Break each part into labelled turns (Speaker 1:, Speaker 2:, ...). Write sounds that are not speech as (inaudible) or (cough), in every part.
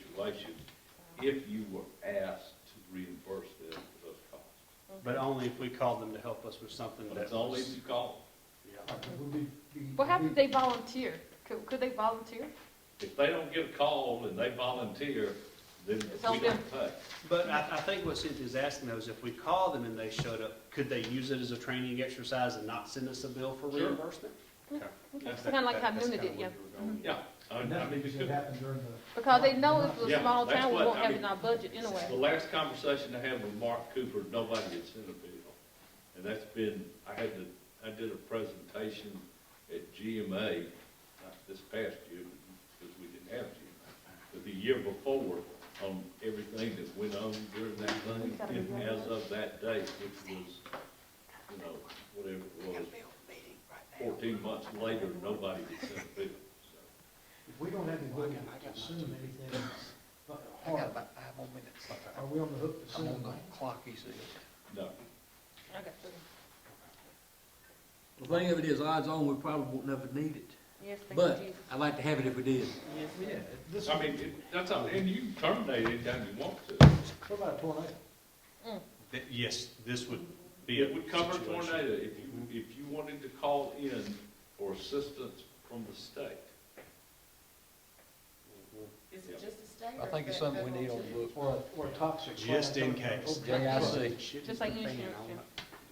Speaker 1: situation if you were asked to reimburse them for those costs.
Speaker 2: But only if we called them to help us with something
Speaker 1: But
Speaker 2: that
Speaker 1: it's only
Speaker 2: was,
Speaker 1: if you call.
Speaker 2: yeah.
Speaker 3: What happened if they volunteer? Could, could they volunteer?
Speaker 1: If they don't get a call and they volunteer, then
Speaker 3: It's on
Speaker 1: we don't pay.
Speaker 2: But I, I think what Cynthia's asking though is if we call them and they showed up, could they use it as a training exercise and not send us a bill for
Speaker 1: Sure.
Speaker 2: reimbursement?
Speaker 3: Mm,
Speaker 2: Okay.
Speaker 3: It's kinda like how
Speaker 2: That's
Speaker 3: Nuna
Speaker 2: kinda
Speaker 3: did,
Speaker 2: where
Speaker 3: yeah. Mm-hmm.
Speaker 2: we were going.
Speaker 1: Yeah. I mean, I mean,
Speaker 4: Nothing
Speaker 1: because
Speaker 4: should happen during the.
Speaker 3: Because they know if it's a
Speaker 1: Yeah,
Speaker 3: small
Speaker 1: that's
Speaker 3: town, we
Speaker 1: what-
Speaker 3: won't
Speaker 1: I
Speaker 3: have it
Speaker 1: mean-
Speaker 3: in our budget
Speaker 1: The
Speaker 3: anyway.
Speaker 1: last conversation I had with Mark Cooper, nobody had sent a bill. And that's been, I had to, I did a presentation at GMA, not this past year, because we didn't have GMA, but the year before, on everything that went on during that thing, and as of that date, which was, you know, whatever it was, fourteen months later, nobody had sent a bill, so.
Speaker 4: If we don't have the ability to assume anything but
Speaker 5: I got
Speaker 4: hard,
Speaker 5: about five more minutes.
Speaker 4: are we on the hook to
Speaker 5: I'm
Speaker 4: assume?
Speaker 5: on the clock, you see.
Speaker 1: No,
Speaker 3: I got three.
Speaker 6: The thing of it is, odds on, we probably won't never need it,
Speaker 3: Yes, thank
Speaker 6: but
Speaker 3: you.
Speaker 6: I'd like to have it if we did.
Speaker 4: Yeah, this,
Speaker 1: I mean, it- that's, all- and you can terminate anytime you want to.
Speaker 4: what about a tornado?
Speaker 2: That- Yes, this would be a
Speaker 1: It would cover
Speaker 2: situation.
Speaker 1: tornado if you, if you wanted to call in for assistance from the state.
Speaker 7: Is it just a state?
Speaker 5: I
Speaker 7: or
Speaker 5: think
Speaker 7: is
Speaker 5: it's
Speaker 7: that
Speaker 5: something we need on
Speaker 7: federal
Speaker 5: the
Speaker 7: too?
Speaker 5: book.
Speaker 4: Or, a- or a toxic.
Speaker 2: Just in
Speaker 4: plant.
Speaker 2: case.
Speaker 5: JIC.
Speaker 3: Just like insurance,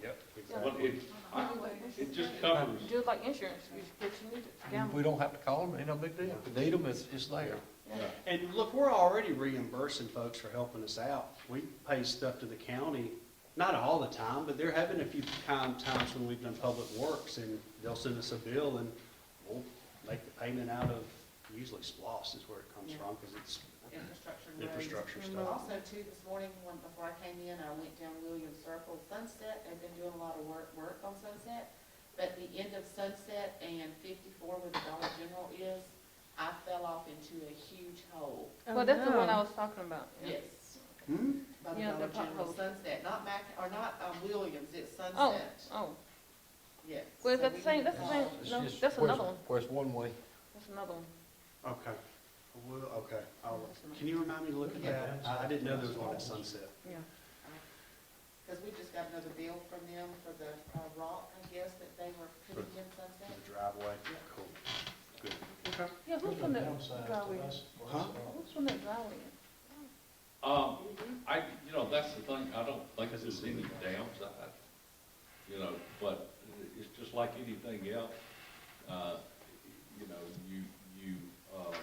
Speaker 2: Yep.
Speaker 1: But it, I- it just covers,
Speaker 3: Just like insurance, you should get you need it. down.
Speaker 5: We don't have to call them, ain't no big deal. If we need them, it's, it's there.
Speaker 1: yeah,
Speaker 2: And look, we're already reimbursing folks for helping us out. We pay stuff to the county, not all the time, but there have been a few time, times when we've done public works and they'll send us a bill and we'll make the payment out of, usually SPOS is where it comes from, because it's
Speaker 7: Infrastructure and roads.
Speaker 2: infrastructure
Speaker 3: and
Speaker 2: stuff.
Speaker 7: Also too, this morning, when, before I came in, I went down Williams Circle, Sunset, they've been doing a lot of work, work on Sunset. But the end of Sunset and fifty-four where the Dollar General is, I fell off into a huge hole.
Speaker 8: Oh,
Speaker 3: Well, that's the one I was talking about. yeah.
Speaker 7: Yes.
Speaker 2: Hmm?
Speaker 7: By the
Speaker 3: Yeah, the
Speaker 7: Dollar General,
Speaker 3: pothole.
Speaker 7: Sunset, not Mac, or not, um, Williams, it's
Speaker 3: Oh,
Speaker 7: Sunset,
Speaker 3: oh,
Speaker 7: yes.
Speaker 3: well, is
Speaker 7: So
Speaker 3: that the
Speaker 7: we
Speaker 3: same,
Speaker 7: need
Speaker 3: that's the
Speaker 7: to
Speaker 3: same,
Speaker 7: call.
Speaker 5: It's
Speaker 3: no,
Speaker 5: just
Speaker 3: that's
Speaker 5: where
Speaker 3: another
Speaker 5: it's-
Speaker 3: one,
Speaker 5: Where it's one way.
Speaker 3: that's another one.
Speaker 2: Okay. Well, okay. I'll- Can you remind me to look at that? I I didn't know there was one at Sunset.
Speaker 3: Yeah.
Speaker 7: Because we just got another bill from them for the uh, rock, I guess, that they were putting in
Speaker 2: The
Speaker 7: Sunset.
Speaker 2: driveway. Cool. Good. Okay.
Speaker 3: Yeah,
Speaker 4: There's
Speaker 3: who's
Speaker 4: no
Speaker 3: from the
Speaker 4: downside to
Speaker 3: driveway?
Speaker 4: us or us
Speaker 2: Huh?
Speaker 4: at all.
Speaker 3: Who's from the driveway?
Speaker 1: um, I, you know, that's the thing, I don't think there's any downside, you know, but it's just like anything else. Uh, you know, you, you, um,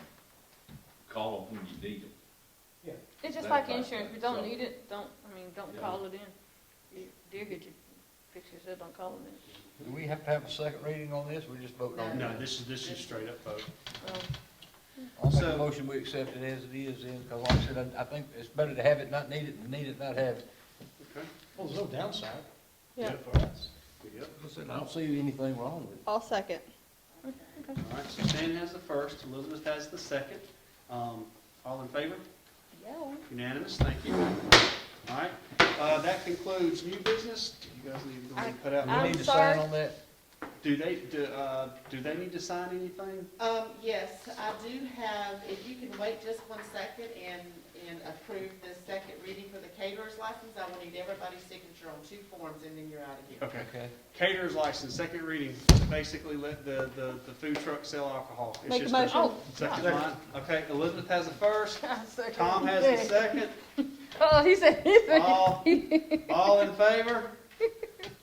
Speaker 1: call them when you need them.
Speaker 3: It's just
Speaker 1: That
Speaker 3: like
Speaker 1: part,
Speaker 3: insurance, if you
Speaker 1: so-
Speaker 3: don't need it, don't, I mean, don't
Speaker 1: Yeah.
Speaker 3: call it in. You- They'll get you, fix yourself, don't call it
Speaker 5: Do we have to have a second reading on this? We just vote on it.
Speaker 2: No, this is, this is straight up vote.
Speaker 3: in. Um,
Speaker 5: I'll make
Speaker 2: So-
Speaker 5: a motion, we accept it as it is then, because like I said, I, I think it's better to have it, not need it, than need it, not have it.
Speaker 2: Okay.
Speaker 4: Well, there's no downside.
Speaker 3: Yeah.
Speaker 4: For us.
Speaker 2: Yep.
Speaker 5: I said, I don't see anything wrong with it.
Speaker 8: I'll second.
Speaker 2: All right, Suzanne has the first, Elizabeth has the second. Um, All in favor?
Speaker 3: Yeah.
Speaker 2: Unanimous, thank you. All right, uh, that concludes new business. You guys need to go ahead and put
Speaker 5: Do we
Speaker 3: I'm
Speaker 2: out.
Speaker 5: need to
Speaker 3: sorry.
Speaker 5: sign on that?
Speaker 2: Do they, do, uh, do they need to sign anything?
Speaker 7: Um, yes, I do have, if you can wait just one second and, and approve the second reading for the caterer's license, I will need everybody's signature on two forms and then you're out of here.
Speaker 2: Okay.
Speaker 5: Okay.
Speaker 2: Caterer's license, second reading, basically let the, the, the food truck sell alcohol. It's
Speaker 8: Make a
Speaker 2: just
Speaker 8: motion.
Speaker 3: Oh,
Speaker 2: Second line, okay, Elizabeth has the first, Tom has the
Speaker 3: it.
Speaker 8: (laughs)
Speaker 2: second.
Speaker 3: Oh, he said, he said.
Speaker 2: All, all in favor?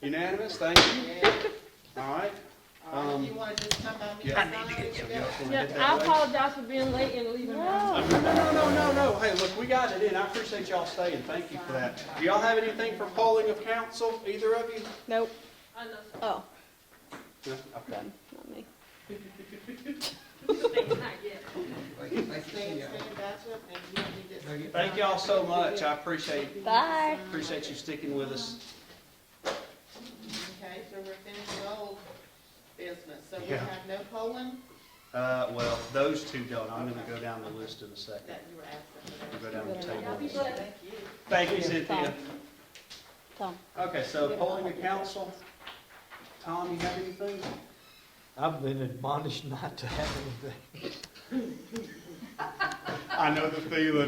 Speaker 2: Unanimous, thank you.
Speaker 7: Yeah.
Speaker 2: All right.
Speaker 7: All right, If
Speaker 2: Um,
Speaker 7: you want to just come by me
Speaker 2: yeah.
Speaker 7: and sign it, you go.
Speaker 3: Yeah, I apologize for being late and leaving.
Speaker 2: No, no, no, no, no, no. Hey, look, we got it in. I appreciate y'all staying. Thank you for that. Do y'all have anything for polling of council, either of you?
Speaker 8: Nope.
Speaker 3: I know, sir.
Speaker 8: Oh,
Speaker 2: No? Okay.
Speaker 8: done, not me.
Speaker 3: Not yet.
Speaker 7: Stand, stand back up and you don't need this.
Speaker 2: Thank y'all so much. I appreciate,
Speaker 8: Bye.
Speaker 2: appreciate you sticking with us.
Speaker 7: Okay, so we're finished with old business, so we
Speaker 2: Yeah.
Speaker 7: have no polling
Speaker 2: Uh, well, those two don't. I'm gonna go down the list in a second.
Speaker 7: that you were asking
Speaker 2: We'll
Speaker 7: about.
Speaker 2: go down the
Speaker 3: Y'all be
Speaker 2: table.
Speaker 3: blessed.
Speaker 7: Thank you.
Speaker 2: Thank you, Cynthia.
Speaker 8: Tom.
Speaker 2: Okay, so polling of council. Tom, you have anything?
Speaker 4: I've been admonished not to have anything.
Speaker 2: I know the feeling.